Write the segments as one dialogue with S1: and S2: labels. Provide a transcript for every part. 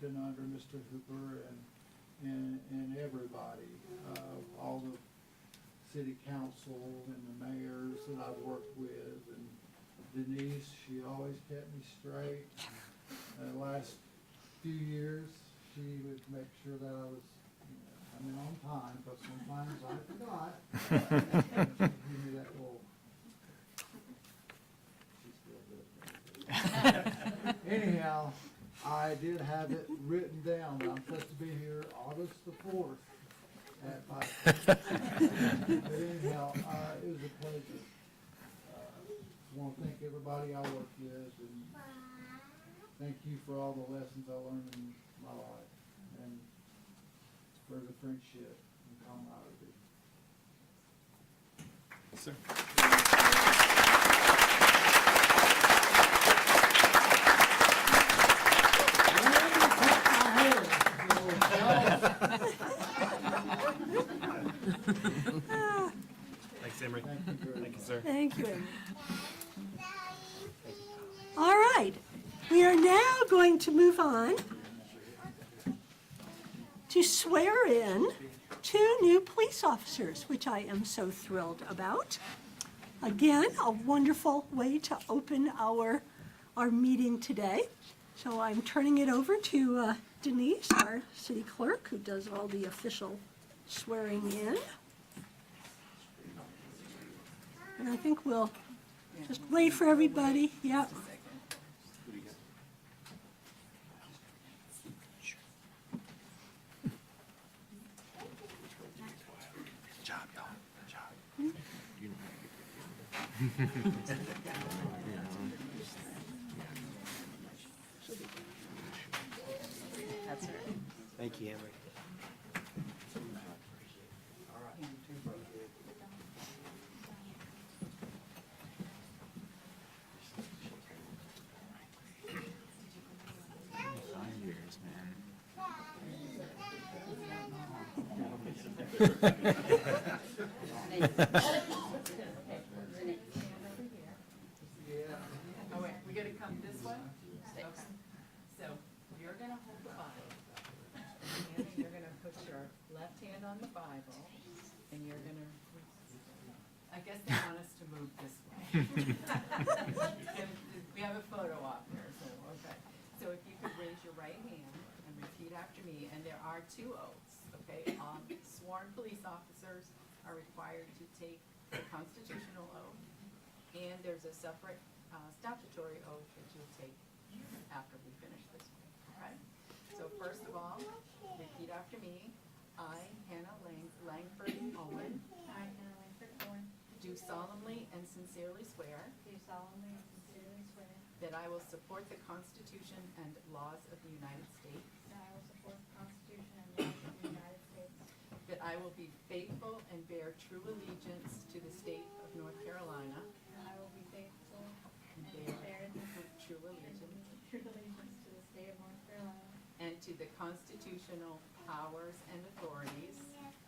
S1: been under Mr. Hooper and, and, and everybody, uh, all the city council and the mayors that I've worked with, and Denise, she always kept me straight. The last few years, she would make sure that I was, you know, I mean, on time, but sometimes I forgot. Give me that little. She still does that. Anyhow, I did have it written down, that I'm supposed to be here August the fourth at five. But anyhow, uh, it was a pleasure. Want to thank everybody I worked with and thank you for all the lessons I learned in my life and for the friendship and camaraderie.
S2: Sir. Thanks, Emery.
S1: Thank you very
S2: Thank
S1: much.
S2: you, sir.
S3: Thank you. All right, we are now going to move on to swear in two new police officers, which I am so thrilled about. Again, a wonderful way to open our, our meeting today. So I'm turning it over to uh, Denise, our city clerk, who does all the official swearing in. And I think we'll just wait for everybody, yep.
S4: That's right.
S5: Thank you, Emery.
S4: Oh, wait, we gotta come this way? Okay. So you're gonna hold the Bible. And you're gonna put your left hand on the Bible and you're gonna, I guess they want us to move this way. We have a photo op here, so, okay. So if you could raise your right hand and repeat after me, and there are two oaths, okay? Um, Sworn police officers are required to take the constitutional oath and there's a separate uh, statutory oath that you'll take after we finish this one, all right? So first of all, repeat after me. I, Hannah Lang- Langford Owen,
S6: I, Hannah Langford Thorne,
S4: do solemnly and sincerely swear
S6: do solemnly and sincerely swear
S4: that I will support the Constitution and laws of the United States,
S6: that I will support the Constitution and laws of the United States,
S4: that I will be faithful and bear true allegiance to the state of North Carolina,
S6: that I will be faithful
S4: and
S6: and
S4: bear
S6: bear
S4: true allegiance,
S6: true allegiance to the state of North Carolina
S4: and to the constitutional powers and authorities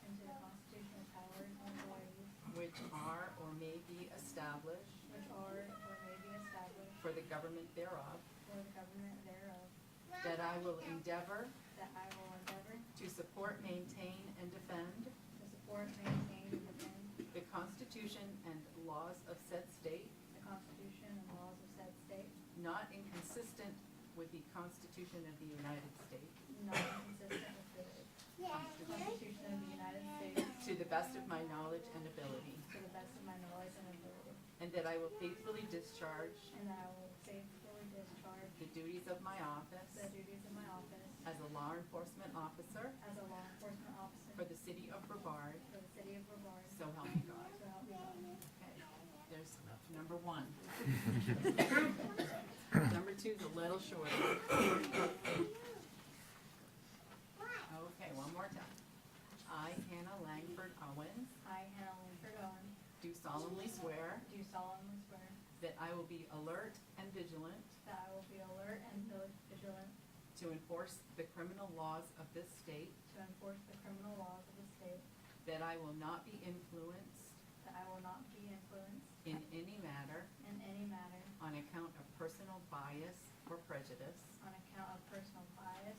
S6: and to the constitutional powers and authorities
S4: Which are or may be established
S6: which are or may be established
S4: for the government thereof,
S6: for the government thereof,
S4: that I will endeavor
S6: that I will endeavor
S4: to support, maintain, and defend
S6: to support, maintain, and defend
S4: the Constitution and laws of said state,
S6: the Constitution and laws of said state,
S4: not inconsistent with the Constitution of the United States,
S6: not inconsistent with the Constitution of the United States,
S4: to the best of my knowledge and ability,
S6: to the best of my knowledge and ability.
S4: and that I will faithfully discharge
S6: And that I will faithfully discharge
S4: the duties of my
S6: the
S4: office
S6: duties of my office
S4: as a law enforcement officer
S6: as a law enforcement officer
S4: for the city of Brevard,
S6: for the city of Brevard.
S4: so help me God.
S6: So help me God.
S4: Okay, There's number one. Number two's a little shorter. Okay, one more time. I, Hannah Langford Owens,
S6: I, Hannah Langford Owen,
S4: do solemnly swear
S6: do solemnly swear
S4: that I will be alert and vigilant
S6: that I will be alert and vigilant
S4: to enforce the criminal laws of this state,
S6: to enforce the criminal laws of the state,
S4: that I will not be influenced
S6: that I will not be influenced
S4: in any matter
S6: in any matter
S4: on account of personal bias or prejudice,
S6: on account of personal bias